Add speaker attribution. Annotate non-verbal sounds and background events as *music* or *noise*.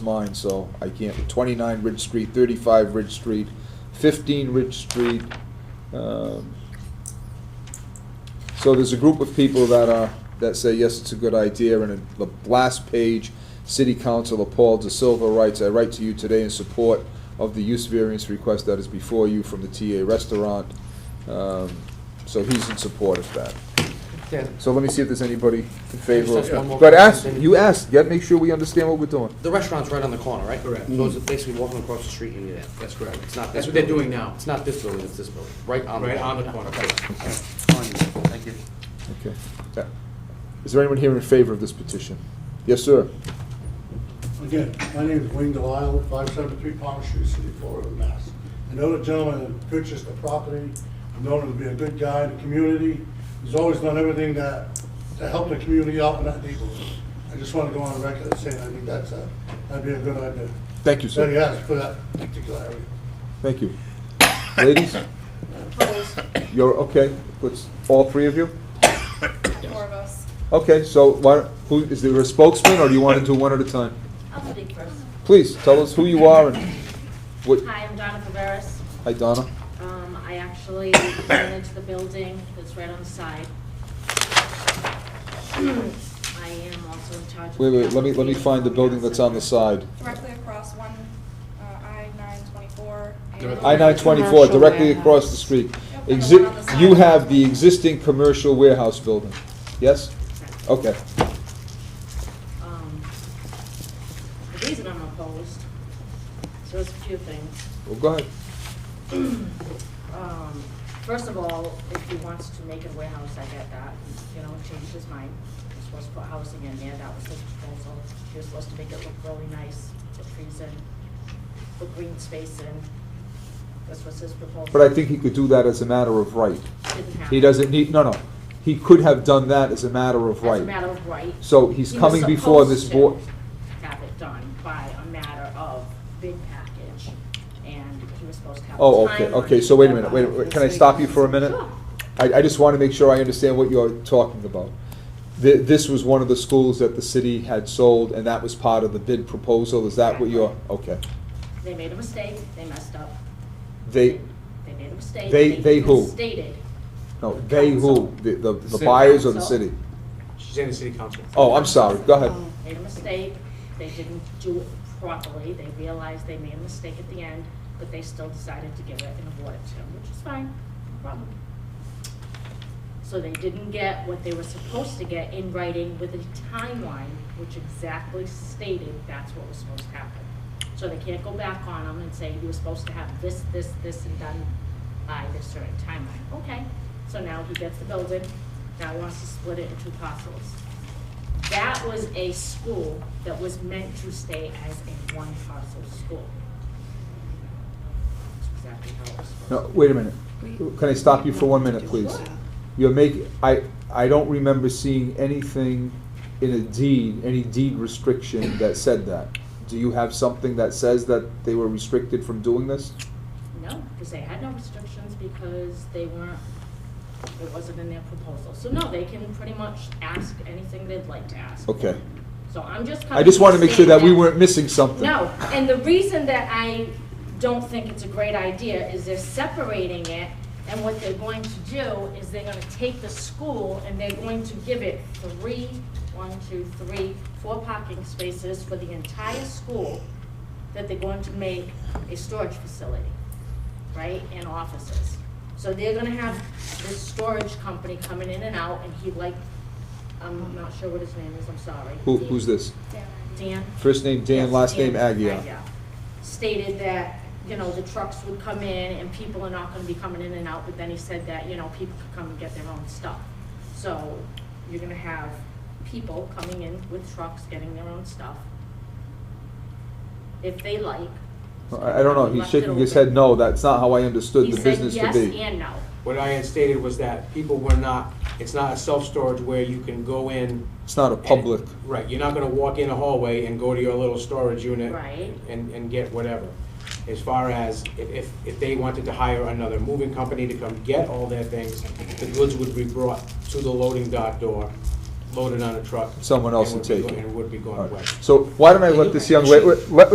Speaker 1: mine, so I can't, twenty-nine Ridge Street, thirty-five Ridge Street, fifteen Ridge Street. um, So there's a group of people that are, that say, yes, it's a good idea, and in the last page, City Councilor Paul De Silva writes, I write to you today in support of the use variance request that is before you from the TA Restaurant. Um, So he's in support of that.
Speaker 2: Dan,
Speaker 1: So let me see if there's anybody in favor
Speaker 2: Just one
Speaker 1: of,
Speaker 2: more
Speaker 1: but ask,
Speaker 2: question.
Speaker 1: you ask, yet make sure we understand what we're doing.
Speaker 2: the restaurant's right on the corner, right?
Speaker 3: Correct.
Speaker 2: So it's basically walking across the street and you're there.
Speaker 3: That's correct.
Speaker 2: It's not this
Speaker 3: That's what they're
Speaker 2: building.
Speaker 3: doing now,
Speaker 2: It's not this building, it's this building, right on the
Speaker 3: right on
Speaker 2: corner.
Speaker 3: the corner.
Speaker 2: Thank you.
Speaker 1: Okay. Uh, Is there anyone here in favor of this petition? Yes, sir.
Speaker 4: Again, my name is Wayne Delisle, 573 Palm Street, City, of Florida, Mass. I know the gentleman that purchased the property, I've known him to be a good guy in the community. He's always done everything that, to help the community out in that neighborhood. I just want to go on record and say, I think that's a, that'd be a good idea.
Speaker 1: Thank you,
Speaker 4: So
Speaker 1: sir.
Speaker 4: yes, for that particular area.
Speaker 1: Thank you. Ladies, you're, okay, let's, all three of you?
Speaker 5: Four of us.
Speaker 1: Okay, so why, who, is there a spokesman, or do you want to do one at a time?
Speaker 5: I'll do Dick first.
Speaker 1: Please, tell us who you are and what,
Speaker 5: Hi, I'm Donna Viveras.
Speaker 1: hi, Donna.
Speaker 5: Um, I actually *coughs* went into the building that's right on the side. *clears throat* I am also in charge of.
Speaker 1: Wait, wait, let me, let me find the building that's on the side.
Speaker 6: directly across one, uh, I nine twenty-four.
Speaker 1: I nine twenty-four, directly across the street. Exi, you have the existing commercial warehouse building, yes? Okay,
Speaker 5: Um, The reason I'm opposed, so it's a few things.
Speaker 1: well, go ahead.
Speaker 5: Um, First of all, if he wants to make a warehouse, I get that, you know, changed his mind. He's supposed to put housing in there, that was his proposal. He was supposed to make it look really nice, put trees in, put green space in. This was his proposal.
Speaker 1: But I think he could do that as a matter of right.
Speaker 5: Didn't happen.
Speaker 1: He doesn't need, no, no, he could have done that as a matter of
Speaker 5: As a
Speaker 1: right.
Speaker 5: matter of right.
Speaker 1: So he's
Speaker 5: He was
Speaker 1: coming before this board.
Speaker 5: supposed to Have it done by a matter of bid package, and he was supposed to have. a
Speaker 1: Oh, okay, okay, so wait a minute, wait, a
Speaker 5: timeline.
Speaker 1: minute. can I stop you for a minute?
Speaker 5: Sure.
Speaker 1: I, I just want to make sure I understand what you're talking about. Th- This was one of the schools that the city had sold, and that was part of the bid proposal, is that what you're, okay.
Speaker 5: They made a mistake, they messed up.
Speaker 1: They,
Speaker 5: They made a mistake.
Speaker 1: They- they who?
Speaker 5: Stated.
Speaker 1: no, they who, the, the
Speaker 3: The
Speaker 1: the
Speaker 3: city.
Speaker 1: buyers or the
Speaker 5: Council. Um,
Speaker 1: city?
Speaker 3: She's in the city council.
Speaker 1: Oh, I'm sorry, go ahead.
Speaker 5: Made a mistake, they didn't do it properly, they realized they made a mistake at the end, but they still decided to give it and award it to him, which is fine, no problem. So they didn't get what they were supposed to get in writing with a timeline, which exactly stated that's what was supposed to happen. So they can't go back on them and say, you were supposed to have this, this, this, and done by this certain timeline. Okay, so now he gets the building, now he wants to split it into parcels. That was a school that was meant to stay as a one parcel school. That's exactly how it was supposed to
Speaker 1: No, wait a minute. Can I stop you for one minute, please? You're making, I, I don't remember seeing anything in a deed, any deed restriction that said that. Do you have something that says that they were restricted from doing this?
Speaker 5: No, because they had no restrictions because they weren't, it wasn't in their proposal. So no, they can pretty much ask anything they'd like to ask.
Speaker 1: Okay.
Speaker 5: So I'm just coming.
Speaker 1: I just want to make sure that we
Speaker 5: stand
Speaker 1: weren't missing something.
Speaker 5: No, and the reason that I don't think it's a great idea is they're separating it, and what they're going to do is they're gonna take the school and they're going to give it three, one, two, three, four parking spaces for the entire school that they're going to make a storage facility, right, and offices. So they're gonna have this storage company coming in and out, and he like, I'm not sure what his name is, I'm sorry.
Speaker 1: Who, who's this?
Speaker 5: Dan?
Speaker 1: First name Dan,
Speaker 5: Yes,
Speaker 1: last name
Speaker 5: Dan
Speaker 1: Agia.
Speaker 5: Agia. Stated that, you know, the trucks would come in and people are not gonna be coming in and out, but then he said that, you know, people could come and get their own stuff. So you're gonna have people coming in with trucks, getting their own stuff. If they like.
Speaker 1: I, I don't know,
Speaker 5: He
Speaker 1: he's
Speaker 5: left it
Speaker 1: shaking his
Speaker 5: open.
Speaker 1: head no, that's not how I understood
Speaker 5: He
Speaker 1: the
Speaker 5: said
Speaker 1: business to
Speaker 5: yes
Speaker 1: be.
Speaker 5: and no.
Speaker 3: What I had stated was that people were not, it's not a self-storage where you can go in.
Speaker 1: It's not a
Speaker 3: and-
Speaker 1: public,
Speaker 3: Right, you're not gonna walk in a hallway and go to your little storage unit.
Speaker 5: Right.
Speaker 3: And, and get whatever. As far as if- if, if they wanted to hire another moving company to come get all their things, the goods would be brought to the loading dock door loaded on a truck.
Speaker 1: Someone else
Speaker 3: and
Speaker 1: would
Speaker 3: be
Speaker 1: take
Speaker 3: go-
Speaker 1: it.
Speaker 3: And would be
Speaker 1: All
Speaker 3: going
Speaker 1: right.
Speaker 3: west.
Speaker 1: So why don't I let this young, la- let,